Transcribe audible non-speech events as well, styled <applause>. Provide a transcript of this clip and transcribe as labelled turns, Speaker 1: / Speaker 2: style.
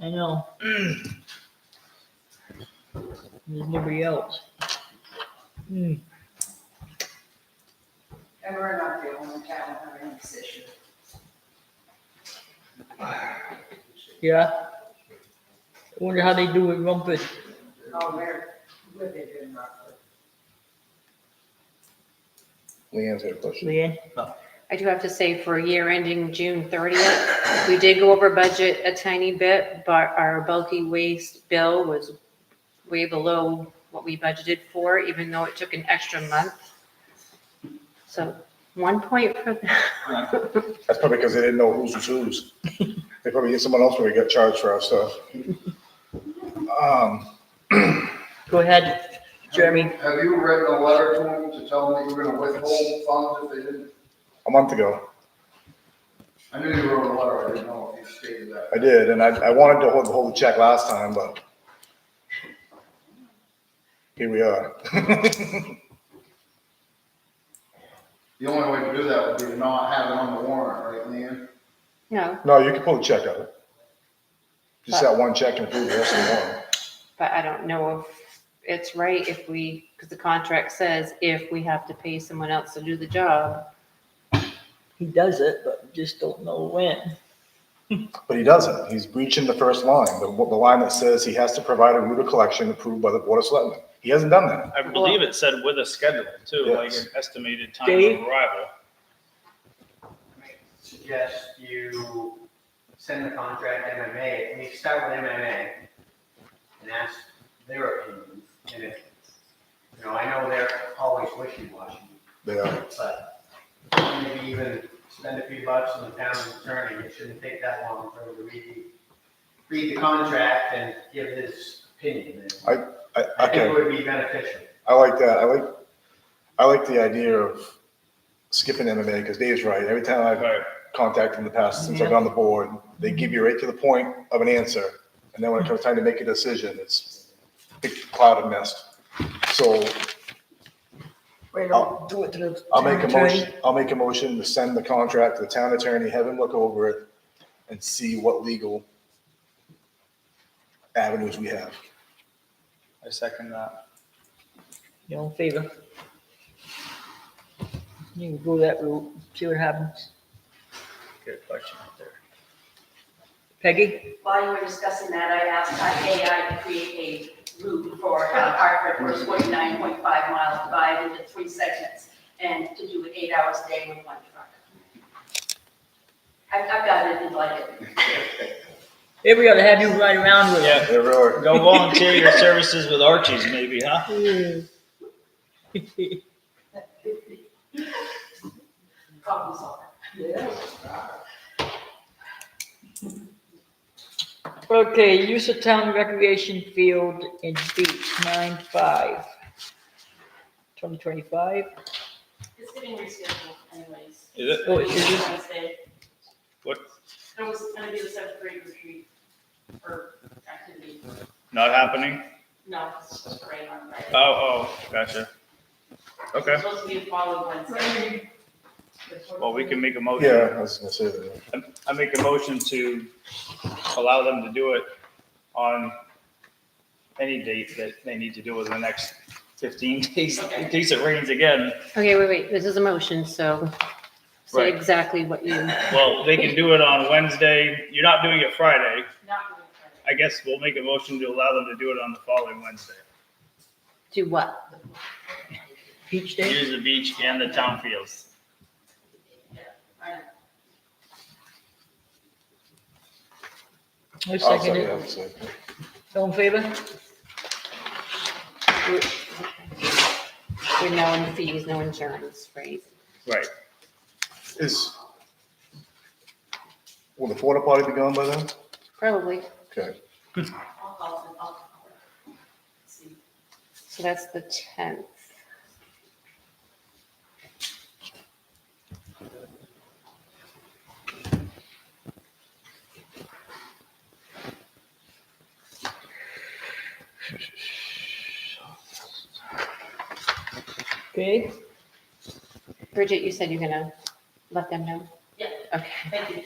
Speaker 1: I
Speaker 2: <clears throat>
Speaker 1: know. There's nobody else. Hmm.
Speaker 3: And we're not the only town having this issue.
Speaker 1: Yeah. I wonder how they do with Rumpus.
Speaker 3: Oh, we're, we're big in Rockford.
Speaker 2: Leanne's got a question.
Speaker 1: Leanne?
Speaker 4: I do have to say for a year ending June thirtieth, we did go over budget a tiny bit, but our bulky waste bill was way below what we budgeted for, even though it took an extra month. So one point for,
Speaker 2: That's probably because they didn't know who's was whose. They probably hit someone else when we got charged for our stuff. Um,
Speaker 1: Go ahead, Jeremy.
Speaker 5: Have you written a letter to them to tell them that you were gonna withhold funds if they didn't?
Speaker 2: a month ago,
Speaker 5: I knew you wrote a letter, I didn't know if you stated that.
Speaker 2: I did, and I, I wanted to hold, hold the check last time, but here we are. <laughs>
Speaker 5: The only way to do that would be to not have it on the warrant, right, Leanne?
Speaker 4: <laughs> no,
Speaker 2: No, you can pull the check out. Just that one check and approve the rest of the warrant.
Speaker 4: but I don't know if it's right if we, because the contract says if we have to pay someone else to do the job.
Speaker 1: He does it, but just don't know when.
Speaker 2: But he doesn't. He's breaching the first line, the, the line that says he has to provide a route of collection approved by the Board of Selectmen. He hasn't done that.
Speaker 6: I believe it said with a schedule too, like
Speaker 2: Yes.
Speaker 6: an estimated time of
Speaker 1: Dave?
Speaker 6: arrival.
Speaker 7: suggest you send the contract to MMA, we start with MMA and ask their opinion. And if, you know, I know they're always wishy-washy,
Speaker 2: They are.
Speaker 7: but maybe even spend a few bucks on the town attorney, it shouldn't take that long for them to read the, read the contract and give his opinion. And
Speaker 2: I,
Speaker 7: I
Speaker 2: okay.
Speaker 7: think it would be beneficial.
Speaker 2: I like that. I like, I like the idea of skipping MMA because Dave's right. Every time I've
Speaker 6: Right.
Speaker 2: contacted in the past, since I've been on the board, they give you right to the point of an answer. And then when it comes time to make a decision, it's a big cloud of mist. So
Speaker 1: Right,
Speaker 2: I'll-
Speaker 1: do it to the.
Speaker 2: I'll make a motion, I'll make a motion to send the contract to the town attorney, have him look over it and see what legal avenues we have.
Speaker 6: I second that.
Speaker 1: You know, favor. You can go that route, see what happens.
Speaker 6: Good question out there.
Speaker 1: Peggy?
Speaker 3: While you were discussing that, I asked AI to create a route for uh, Hartford from forty-nine point five miles divided into three segments and to do it eight hours a day with one truck. I've, I've got it, and like it.
Speaker 1: Here we go, to have you ride around with
Speaker 6: Yeah,
Speaker 2: There are,
Speaker 6: go volunteer your services with Archie's maybe, huh?
Speaker 1: it.
Speaker 3: Problem solved.
Speaker 1: Okay, use of town recreation field and beach, nine five. Twenty twenty-five?
Speaker 8: It's getting rescheduled anyways.
Speaker 6: Is it?
Speaker 1: Oh, is it?
Speaker 8: Wednesday.
Speaker 6: What?
Speaker 8: It was gonna be the seventh grade retreat or activity.
Speaker 6: Not happening?
Speaker 8: No, it's just rain on Friday.
Speaker 6: Oh, oh, gotcha. Okay,
Speaker 8: It's supposed to be the following Wednesday.
Speaker 6: well, we can make a
Speaker 2: yeah,
Speaker 6: motion.
Speaker 2: I was gonna say that.
Speaker 6: I make a motion to allow them to do it on any date that they need to do within the next fifteen <laughs> days, in case it rains again.
Speaker 4: Okay, wait, wait, this is a motion, so say
Speaker 6: Right.
Speaker 4: exactly what you.
Speaker 6: Well, they can do it on Wednesday. You're not doing it Friday.
Speaker 8: Not doing Friday.
Speaker 6: I guess we'll make a motion to allow them to do it on the following Wednesday.
Speaker 4: Do what?
Speaker 1: Beach day?
Speaker 6: Use the beach and the town fields.
Speaker 8: I know.
Speaker 1: I
Speaker 2: I'll
Speaker 1: second
Speaker 2: second
Speaker 1: it.
Speaker 2: that, so.
Speaker 1: All in favor?
Speaker 4: With no fees, no insurance, right?
Speaker 6: Right.
Speaker 2: Is, will the porta potty be gone by then?
Speaker 4: Probably.
Speaker 2: Okay,
Speaker 8: I'll call them, I'll. See.
Speaker 4: So that's the tenth.
Speaker 1: Okay,
Speaker 4: Bridget, you said you're gonna let them know?
Speaker 8: Yeah.
Speaker 4: Okay.
Speaker 8: Thank you.